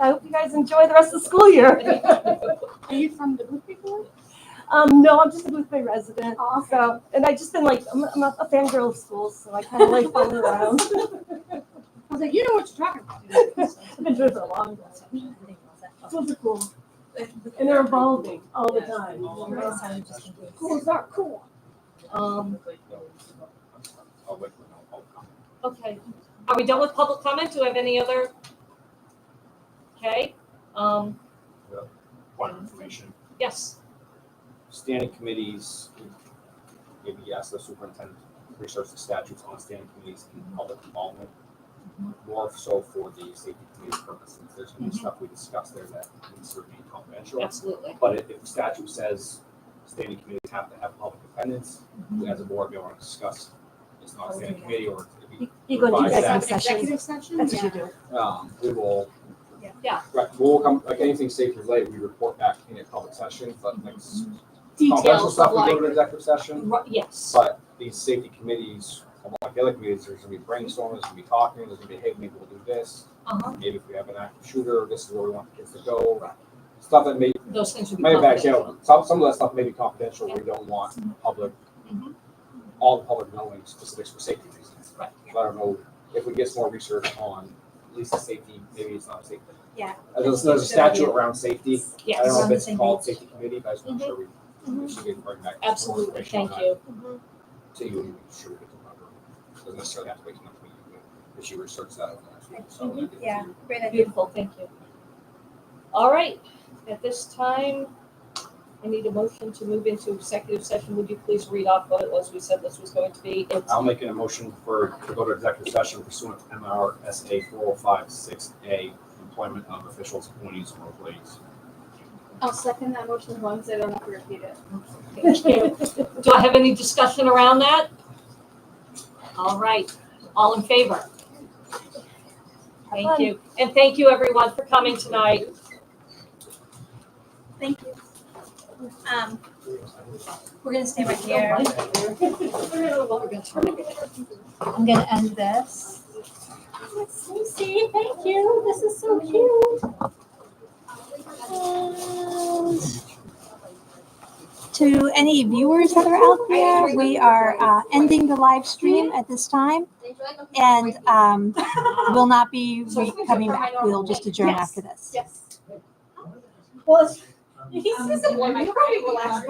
I hope you guys enjoy the rest of the school year. Are you from the Booth Report? Um, no, I'm just a Booth Bay resident. Awesome. So, and I've just been like, I'm, I'm a a fangirl of schools, so I kind of like following around. I was like, you know what you're talking about. I've been doing it for a long time. Schools are cool, and they're evolving all the time. Schools are cool. Um, Okay, are we done with public comment? Do we have any other? Okay, um, One information, yes, standing committees, maybe ask the superintendent, to research the statutes on standing committees and public involvement. More so for the safety committee purposes, there's gonna be stuff we discussed there that needs to remain confidential. absolutely. But if, if the statute says standing committees have to have public defendants, we as a board, we want to discuss, it's not a standing committee or if you, You go into executive Executive session. Executive session? That's what you do. Yeah. um, we will. Yeah. Right, we'll come, like anything safety related, we report back in a public session, but like s- confidential Details stuff, of we like, go to an executive session. Ru- yes, But these safety committees, like the other committees, there's gonna be brainstorming, there's gonna be talking, there's gonna be, hey, maybe we'll do this. uh-huh, Maybe if we have an active shooter, this is where we want the kids to go. Stuff that may, those things would be. may back confidential. out, some, some of that stuff may be confidential, we don't want the public, Mhm. all the public knowing specifics for safety reasons. Right. But I don't know, if we get some more research on at least the safety, maybe it's not a safety. Yeah. Uh, There's, there's a statute around safety, I Yes, don't Around know the if it's same called page. safety committee, but I just want to make sure we, we should get bring back. some more absolutely, information on thank that you. to you and make sure we get the proper, doesn't necessarily have to wait until the meeting, but if you research that over the next week, so. we can- Yeah, great idea. Beautiful, thank you. All right, at this time, I need a motion to move into executive session. Would you please read off what it was we said this was going to be? It's- I'll make an motion for, to go to executive session pursuant to MRSA four oh five six A, employment of officials, appointees, or employees. I'll second that motion as long as I don't have to repeat it. Thank you. Do I have any discussion around that? All right, all in favor? Thank you, and thank you everyone for coming tonight. Thank you. Um, we're gonna stay right here. I'm gonna end this. Lucy, thank you. This is so cute. And Um, To any viewers that are out there, we are uh, ending the live stream at this time. And um, will not be re- coming back. We'll just adjourn Yes. after this. Yes. He's just a boy, my crying will last